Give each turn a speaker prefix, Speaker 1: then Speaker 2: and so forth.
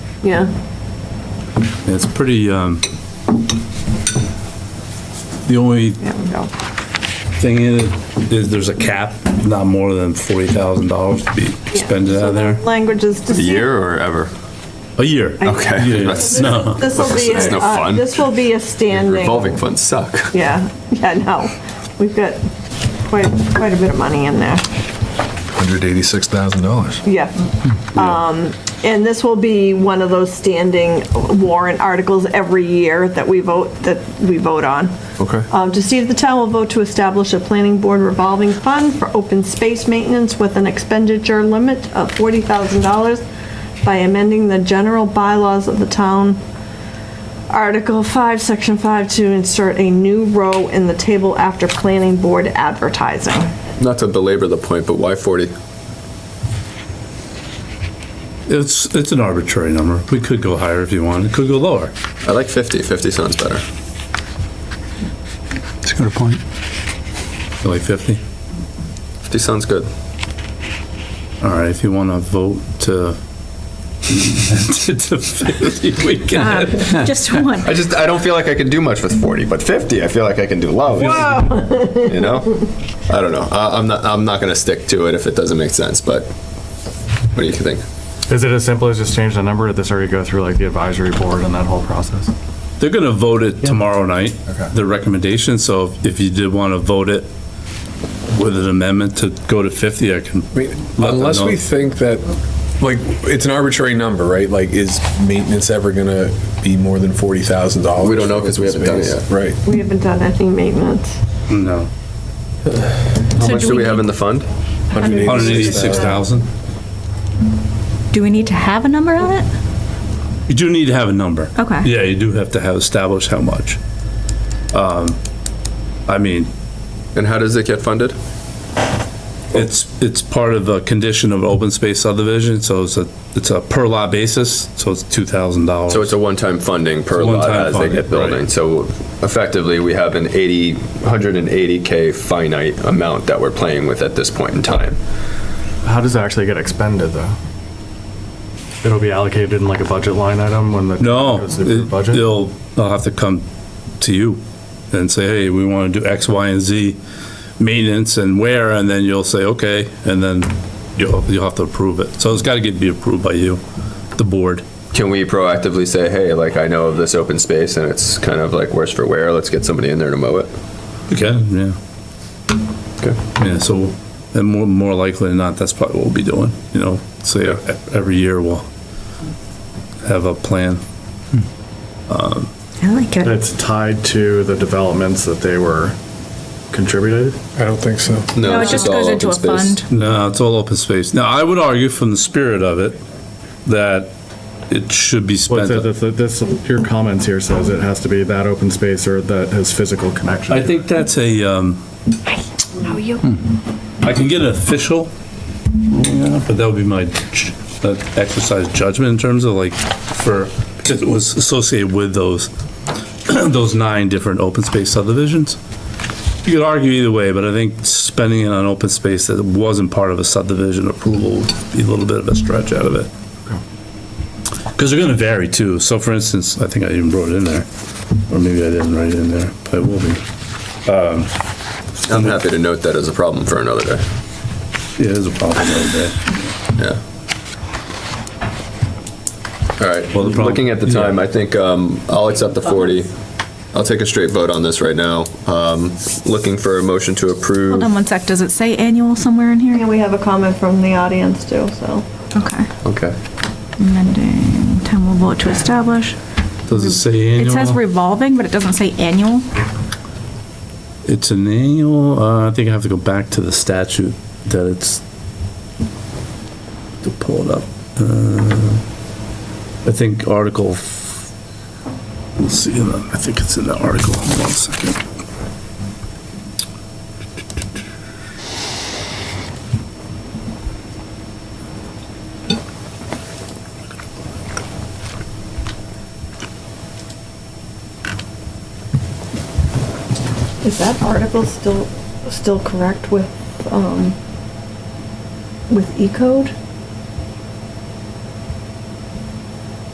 Speaker 1: yeah,
Speaker 2: Yeah, It's pretty, um, the only
Speaker 1: there we go.
Speaker 2: thing is, is there's a cap, not more than $40,000 to be expended out of there,
Speaker 1: Language is
Speaker 3: A
Speaker 1: to see.
Speaker 3: year or ever?
Speaker 2: a year.
Speaker 3: Okay.
Speaker 2: Yeah,
Speaker 3: That's-
Speaker 2: No,
Speaker 1: This will be,
Speaker 3: It's no
Speaker 1: uh,
Speaker 3: fun.
Speaker 1: this will be a standing.
Speaker 3: Revolving funds suck.
Speaker 1: Yeah, yeah, no, we've got quite, quite a bit of money in there,
Speaker 4: $186,000.
Speaker 1: yeah. Um, and this will be one of those standing warrant articles every year that we vote, that we vote on.
Speaker 3: Okay.
Speaker 1: Um, to see if the town will vote to establish a planning board revolving fund for open space maintenance with an expenditure limit of forty thousand dollars by amending the general bylaws of the town Article 5, Section 5, to insert a new row in the table after planning board advertising.
Speaker 3: Not to belabor the point, but why 40?
Speaker 2: it's, it's an arbitrary number. We could go higher if you want, it could go lower.
Speaker 3: I like 50. 50 sounds better.
Speaker 5: It's a good point.
Speaker 2: You Like 50?
Speaker 3: 50 sounds good.
Speaker 2: All right, if you want to vote to, to 50, we can.
Speaker 6: Just one.
Speaker 3: I just, I don't feel like I can do much with 40, but 50, I feel like I can do love. You know? I don't know. I, I'm not, I'm not going to stick to it if it doesn't make sense, but what do you think?
Speaker 7: Is it as simple as just change the number? Did this already go through like the advisory board and that whole process?
Speaker 2: They're going to vote it tomorrow night,
Speaker 4: Okay.
Speaker 2: the recommendation, so if you did want to vote it with an amendment to go to 50, I can.
Speaker 4: I mean,
Speaker 2: let them
Speaker 4: Unless
Speaker 2: know.
Speaker 4: we think that, like, it's an arbitrary number, right? Like, is maintenance ever gonna be more than $40,000?
Speaker 3: We don't know 'cause we haven't done it yet.
Speaker 4: Right.
Speaker 1: We haven't done anything maintenance.
Speaker 2: No.
Speaker 3: How much do we have in the fund?
Speaker 2: 186,000.
Speaker 6: Do we need to have a number on it?
Speaker 2: You do need to have a number.
Speaker 6: Okay.
Speaker 2: Yeah, you do have to have, establish how much. Um, I mean,
Speaker 3: And how does it get funded?
Speaker 2: it's, it's part of a condition of open space subdivision, so it's a, it's a per lot basis, so it's $2,000.
Speaker 3: So it's a one-time funding per
Speaker 2: It's a
Speaker 3: lot
Speaker 2: one-time
Speaker 3: as they get
Speaker 2: funding, right.
Speaker 3: building. So effectively, we have an 80, 180K finite amount that we're playing with at this point in time.
Speaker 7: How does it actually get expended though? It'll be allocated in like a budget line item when the.
Speaker 2: No,
Speaker 7: goes to the
Speaker 2: it-
Speaker 7: Budget?
Speaker 2: they'll, they'll have to come to you and say, hey, we want to do X, Y, and Z maintenance and where, and then you'll say, okay, and then you'll, you'll have to approve it. So it's got to get, be approved by you, the board.
Speaker 3: Can we proactively say, hey, like, I know of this open space and it's kind of like worse for wear, let's get somebody in there to mow it?
Speaker 2: Okay, yeah.
Speaker 3: Okay.
Speaker 2: Yeah, so, and more, more likely than not, that's probably what we'll be doing, you know, so yeah, e- every year we'll have a plan.
Speaker 6: I like it.
Speaker 7: It's tied to the developments that they were contributed?
Speaker 4: I don't think so.
Speaker 6: No, it
Speaker 3: it's
Speaker 6: just
Speaker 3: all
Speaker 6: goes
Speaker 3: open
Speaker 6: into a
Speaker 3: space.
Speaker 6: fund.
Speaker 2: No, it's all open space. Now, I would argue from the spirit of it, that it should be
Speaker 7: What's
Speaker 2: spent.
Speaker 7: it, this, this- your comments here says it has to be that open space or that has physical connection.
Speaker 2: I think that's a, um. How are you? I can get an official, yeah, but that would be my ju- uh, exercise judgment in terms of like, for, because it was associated with those, those nine different open space subdivisions. You could argue either way, but I think spending it on open space that wasn't part of a subdivision approval would be a little bit of a stretch out of it. Because they're gonna vary too. So for instance, I think I even wrote it in there, or maybe I didn't write it in there, but it will be.
Speaker 3: I'm happy to note that as a problem for another day.
Speaker 2: Yeah, there's a problem over there.
Speaker 3: Yeah. All right,
Speaker 2: Well, the problem-
Speaker 3: looking at the time, I think um, I'll accept the 40. I'll take a straight vote on this right now. Um, Looking for a motion to
Speaker 6: Hold
Speaker 3: approve.
Speaker 6: on one sec. Does it say annual somewhere in here?
Speaker 1: And we have a comment from the audience too, so.
Speaker 6: Okay.
Speaker 3: Okay.
Speaker 6: Amending, town will vote to establish.
Speaker 2: Does it say
Speaker 6: It says
Speaker 2: annual?
Speaker 6: revolving, but it doesn't say annual.
Speaker 2: It's an annual, uh, I think I have to go back to the statute that it's, to pull it up. Uh, I think article, f- let's see, uh, I think it's in the article, hold on a second.
Speaker 1: Is that article still, still correct with, um, with E code?